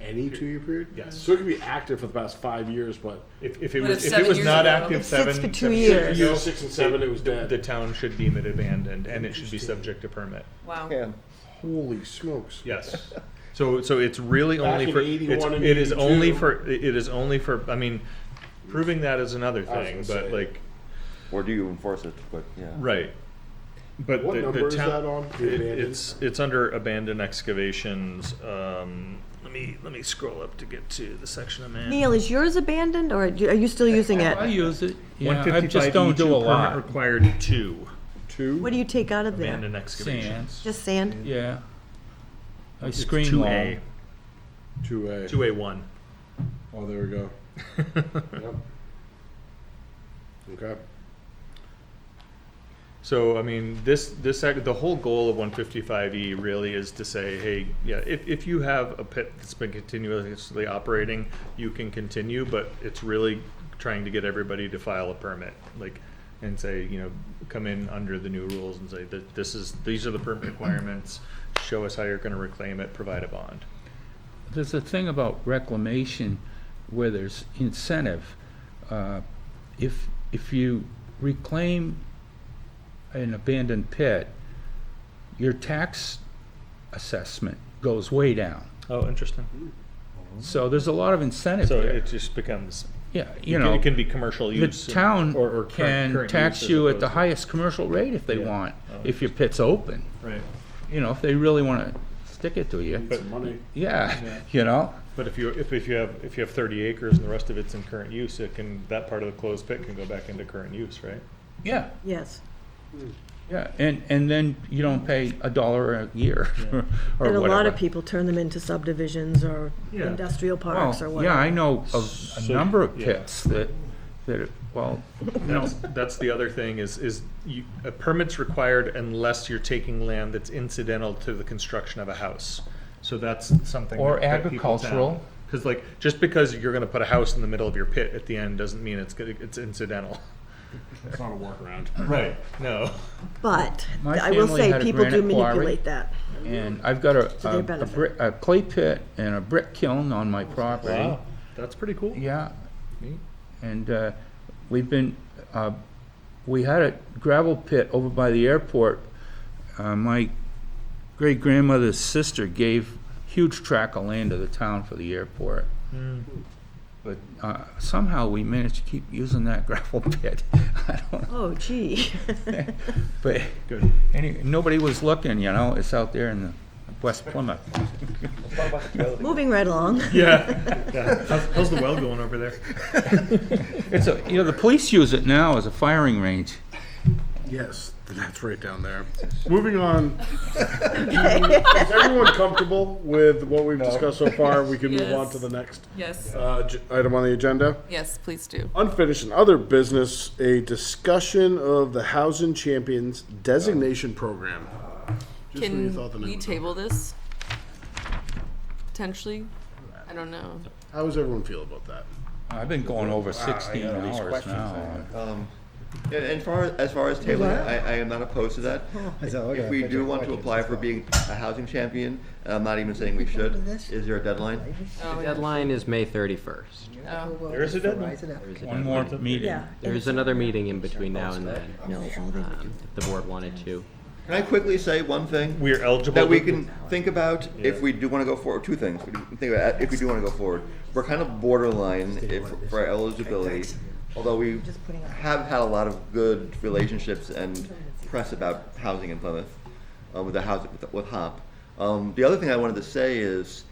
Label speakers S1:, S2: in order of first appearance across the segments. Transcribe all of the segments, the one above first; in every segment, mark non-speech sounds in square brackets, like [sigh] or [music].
S1: any two-year period?
S2: Yes.
S1: So it could be active for the past five years, but
S2: If, if it
S3: But
S2: was,
S3: it's
S2: if it
S3: seven
S2: was
S3: years
S2: not
S3: ago.
S2: active
S4: It sits
S2: seven,
S4: for two
S2: seven
S4: years.
S2: ago,
S1: Years six and seven, it was dead.
S2: The town should deem it abandoned, and it should be subject to permit.
S3: Wow.
S5: Yeah.
S1: holy smokes.
S2: Yes. So, so it's really
S1: Back
S2: only
S1: in
S2: for, it's,
S1: 81 and
S2: it is only
S1: 82.
S2: for, it is only for, I mean, proving that is another
S1: I was
S2: thing,
S1: gonna
S2: but
S1: say.
S2: like,
S5: Or do you enforce it? But yeah.
S2: right. But
S1: What
S2: the- the
S1: number is
S2: town-
S1: that on? The
S2: it-
S1: abandoned?
S2: It's, it's under abandoned excavations, um, let me, let me scroll up to get to the section I'm in.
S4: Neil, is yours abandoned or do- are you still using
S6: I
S4: it?
S6: use it, yeah, I
S2: 155
S6: just don't
S2: E2
S6: do a
S2: permit
S6: lot.
S2: Required two
S4: What do you take out of there?
S2: abandoned excavations.
S4: Just sand?
S6: Yeah. I
S2: It's
S6: screen
S2: Two
S6: wall.
S2: A,
S1: Two A.
S2: two A one. [laughs]
S1: Oh, there we go. Yep. Okay.
S2: So I mean, this this act- the whole goal of 155E really is to say, hey, yeah, if, if you have a pit that's been continuously operating, you can continue, but it's really trying to get everybody to file a permit, like, and say, you know, come in under the new rules and say that this is these are the [clears throat] permit requirements. Show us how you're going to reclaim it. Provide a bond.
S6: There's a thing about reclamation where there's incentive. Uh, If, if you reclaim an abandoned pit, your tax assessment goes way down.
S2: Oh, interesting.
S6: So there's a lot of incentive
S2: So
S6: there.
S2: it just becomes
S6: Yeah,
S2: you
S6: you know.
S2: it can be commercial
S6: The
S2: use.
S6: town
S2: or- or current-
S6: can
S2: current use
S6: tax
S2: as
S6: you at the
S2: opposed to-
S6: highest commercial rate if they
S2: Yeah.
S6: want,
S2: Oh,
S6: if your pit's open.
S2: Right.
S6: You know, if they really want to stick it to you,
S1: Need some money.
S6: yeah, [laughs] you know?
S2: But if you, if, if you have, if you have thirty acres and the rest of it's in current use, it can, that part of the closed pit can go back into current use, right?
S6: Yeah,
S4: Yes.
S6: yeah, and, and then you don't pay a dollar a year [laughs] or
S3: And
S6: whatever.
S3: a lot of people turn them into subdivisions or
S2: Yeah.
S3: industrial parks or
S6: Well, yeah,
S3: whatever.
S6: I know of a number of
S2: yeah.
S6: pits that, that,
S3: [laughs]
S6: well,
S2: That's, that's the other thing is, is you, a permit's required unless you're taking land that's incidental to the construction of a house. So that's something.
S6: Or
S2: that- that people tap.
S6: agricultural.
S2: Cause like, just because you're gonna put a house in the middle of your pit at the end doesn't mean it's, gonna- it's incidental.
S1: It's not a workaround.
S2: Right. [laughs] No.
S3: But
S6: My
S3: I will
S6: family
S3: say,
S6: had a
S3: people do
S6: granite quarry.
S3: manipulate that.
S6: and I've got a,
S3: their
S6: a- a
S3: benefit.
S6: brick, a clay pit and a brick kiln on my property.
S2: That's pretty cool.
S6: Yeah.
S2: Neat.
S6: And uh, we've been, uh, we had a gravel pit over by the airport. Uh, My great grandmother's sister gave huge tract of land to the town for the airport. But uh, somehow we managed to keep using that [laughs] gravel pit. I don't know.
S3: Oh, gee. [laughs]
S6: But [laughs]
S2: Good.
S6: anyway, nobody was looking, you know, it's out there in the West Plymouth.
S3: Moving right along.
S2: Yeah. yeah. How's, how's the well going over there?
S6: It's a, you know, the police use it now as a firing range.
S1: Yes, that's right down [laughs] there. Moving on. Is everyone comfortable with what we've discussed so far? We can move on
S7: Yes.
S1: to the next
S7: Yes,
S1: uh, j- item on the agenda.
S7: yes, please do.
S1: Unfinished and other business, a discussion of the Housing Champions designation program. Just when you thought the
S7: Can
S1: name
S7: we
S1: was-
S7: table this? Potentially? I don't know.
S1: How does everyone feel about that?
S6: I've been going over 16
S5: all these
S6: hours
S5: questions
S6: now.
S5: Um, yeah, and far as far as tabling, I, I am not opposed to that. If we do want to apply for being a housing champion, and I'm not even saying we should, is there a deadline?
S7: Oh, yeah.
S8: Deadline is May 31st.
S7: Oh,
S2: There is a deadline.
S8: There is a
S6: One more
S8: deadline.
S6: meeting.
S3: Yeah.
S8: There's another meeting in between now and then,
S3: No, all they would do.
S8: um, if the board wanted to.
S5: Can I quickly say one thing?
S2: We are eligible.
S5: that we
S2: to-
S5: can think about if we do want to go forward. Two things. We can think about if we do want to go forward. We're kind of borderline if, for our eligibility, although we have had a lot of good relationships and press about housing in Plymouth uh, with the housing with, with HOP. Um, the other thing I wanted to say is,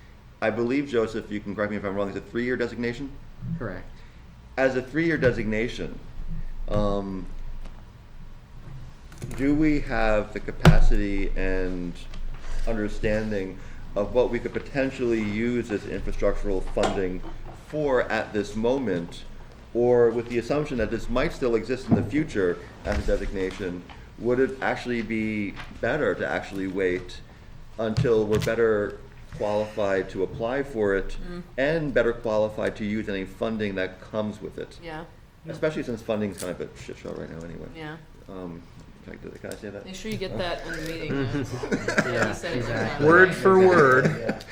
S5: I believe Joseph, you can correct me if I'm wrong. Is it three-year designation?
S8: Correct.
S5: as a three-year designation, um, do we have the capacity and understanding of what we could potentially use as infrastructural funding for at this moment? Or with the assumption that this might still exist in the future as a designation, would it actually be better to actually wait until we're better qualified to apply for it and better qualified to use any funding that comes with it.
S7: Yeah,
S5: Especially since funding's kind of a shit show right now anyway.
S7: yeah.
S5: Um, can I, can I say that?
S7: Make sure you get that in the meeting.
S8: Yeah,
S7: He said it was on.
S2: [laughs]
S8: exactly.
S2: Word for word.